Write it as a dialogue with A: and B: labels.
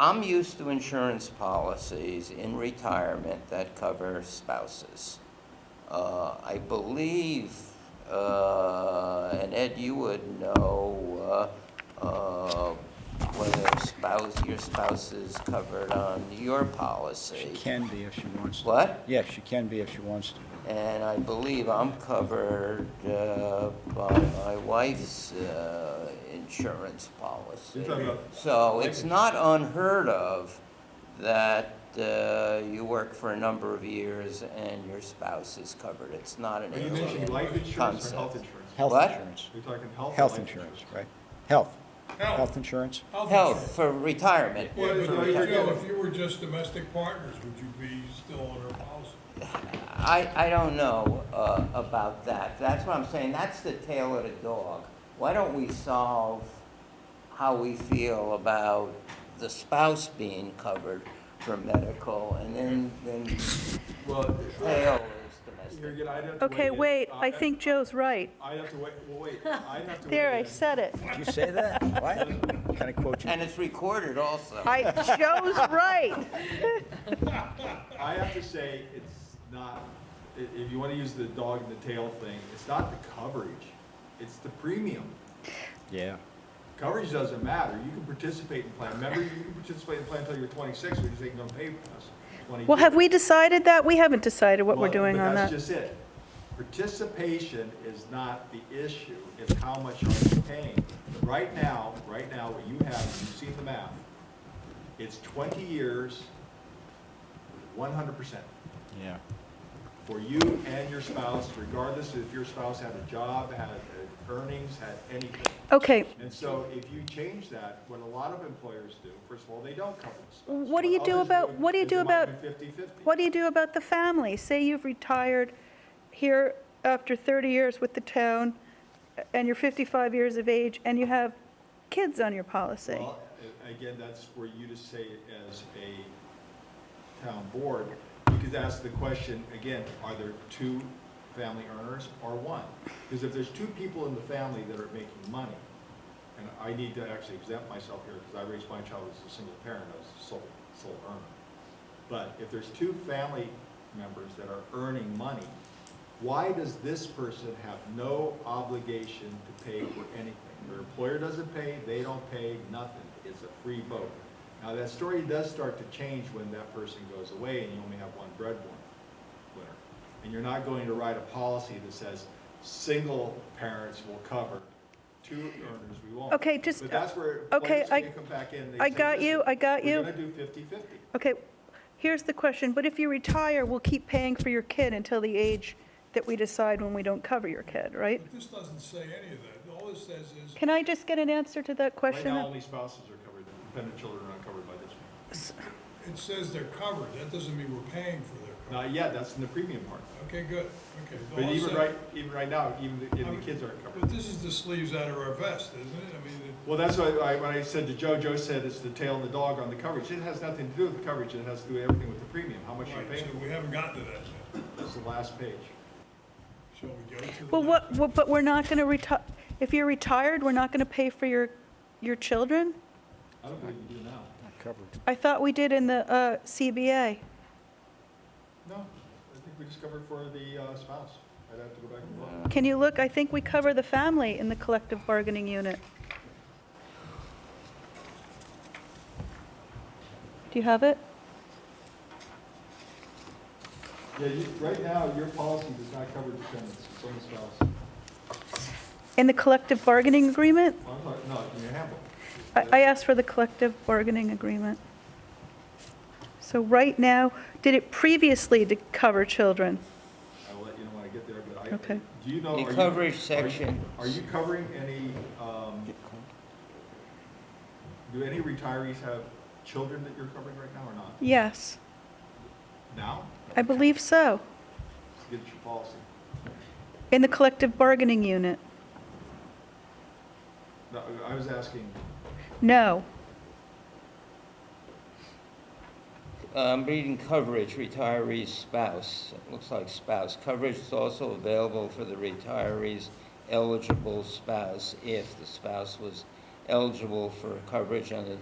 A: I'm used to insurance policies in retirement that cover spouses. Uh, I believe, uh, and Ed, you would know, uh, uh, whether spouse, your spouse is covered on your
B: She
A: policy.
B: can be if she wants to.
A: What?
B: Yeah, she can be if she wants to.
A: And I believe I'm covered uh, by my wife's uh, insurance policy.
C: You're talking about-
A: So it's not unheard of that uh, you work for a number of years and your spouse is covered. It's not an
C: Are you mentioning
A: alien
C: life insurance or health
A: concept.
C: insurance?
B: Health
A: What?
B: insurance.
C: You're talking health or
B: Health
C: life
B: insurance, right? Health. Health insurance?
A: Health for retirement.
D: Yeah,
C: Well,
D: but
C: I-
D: like,
C: I-
D: you know, if you were just domestic partners, would you be still on her policy?
A: I, I don't know uh, about that. That's what I'm saying, that's the tail of the dog. Why don't we solve how we feel about the spouse being covered for medical, and then, then
C: Well,
A: tail is
C: you're
A: domestic.
C: gonna, I'd have to
E: Okay,
C: weigh in.
E: wait,
C: Uh,
E: I think Joe's right.
C: I'd have to wait, well, wait, I'd have to.
E: There,
C: weigh
E: I
C: in.
E: said it.
B: Did you say that? What? Can I quote you?
A: And it's recorded also.
E: I, Joe's right.
C: I have to say, it's not, i- if you wanna use the dog and the tail thing, it's not the coverage, it's the premium.
B: Yeah.
C: Coverage doesn't matter, you can participate in plan, remember, you can participate in plan until you're twenty-six, which is ain't gonna pay for us.
E: Well,
C: 22.
E: have we decided that? We haven't decided what we're
C: Well,
E: doing
C: but
E: on that.
C: That's just it. Participation is not the issue, it's how much are you paying. Right now, right now, what you have, you've seen the math, it's twenty years, one hundred percent
B: Yeah.
C: for you and your spouse, regardless if your spouse had a job, had uh, earnings, had anything.
E: Okay,
C: And so if you change that, what a lot of employers do, first of all, they don't cover the spouse.
E: What do you do
C: others
E: about- what do you
C: is
E: do
C: it might
E: about-
C: be 50/50.
E: what do you do about the family? Say you've retired here after 30 years with the town, and you're 55 years of age, and you have kids on your policy.
C: Well, a- again, that's for you to say as a town board, you could ask the question, again, are there two family earners or one? Because if there's two people in the family that are making money, and I need to actually exempt myself here because I raised my child as a single parent, I was the sole, sole earner. But if there's two family members that are earning money, why does this person have no obligation to pay for anything? Their employer doesn't pay, they don't pay, nothing. It's a free boat. Now, that story does start to change when that person goes away and you only have one breadwinner. winner. And you're not going to write a policy that says, single parents will cover, two earners we won't.
E: Okay, just-
C: But that's where
E: okay,
C: employers
E: I-
C: can come back in. They
E: I
C: say,
E: got you,
C: "Listen,
E: I got you."
C: We're gonna do fifty-fifty.
E: Okay, here's the question, but if you retire, we'll keep paying for your kid until the age that we decide when we don't cover your kid, right?
D: But this doesn't say any of that. All it says is,
E: Can I just get an answer to that
C: Right
E: question?
C: now, only spouses are covered, dependent children are not covered by this one.
D: it says they're covered. That doesn't mean we're paying for their coverage.
C: Not yet, that's in the premium part.
D: Okay, good, okay.
C: But
D: All it
C: even
D: said-
C: right, even right now, even the,
D: I
C: even
D: mean,
C: the kids aren't
D: But
C: covered.
D: this is the sleeves out of our vest, isn't it? I mean, it-
C: Well, that's why I, when I said to Joe, Joe said it's the tail and the dog on the coverage. It has nothing to do with the coverage, it has to do with everything with the premium, how much you're
D: right,
C: paying.
D: so we haven't gotten to that yet.
C: It's the last page.
D: Shall we go to the?
E: Well,
D: next?
E: what, well, but we're not going to retire, if you're retired, we're not going to pay for your, your children?
C: I don't believe you do now.
B: Not covered.
E: I thought we did in the uh, CBA.
C: No, I think we just covered for the uh, spouse. I'd have to go back and look.
E: Can you look, I think we cover the family in the collective bargaining unit. Do you have it?
C: Yeah, you, right now, your policy does not cover dependents, it's only spouse.
E: In the collective bargaining agreement?
C: I'm sorry, no, in your handbook.
E: I I asked for the collective bargaining agreement. So right now, did it previously to cover children?
C: I will let you know when I get there, but I,
E: Okay.
C: do you know?
A: The
C: are you-
A: coverage
C: are you-
A: section.
C: Are you covering any, um, do any retirees have children that you're covering right now or not?
E: Yes,
C: Now?
E: I believe so,
C: Let's Get your policy.
E: in the collective bargaining unit.
C: No, I was asking,
E: No,
A: Um, reading coverage, retiree spouse, It looks like spouse. Coverage is also available for the retiree's eligible spouse if the spouse was eligible for coverage under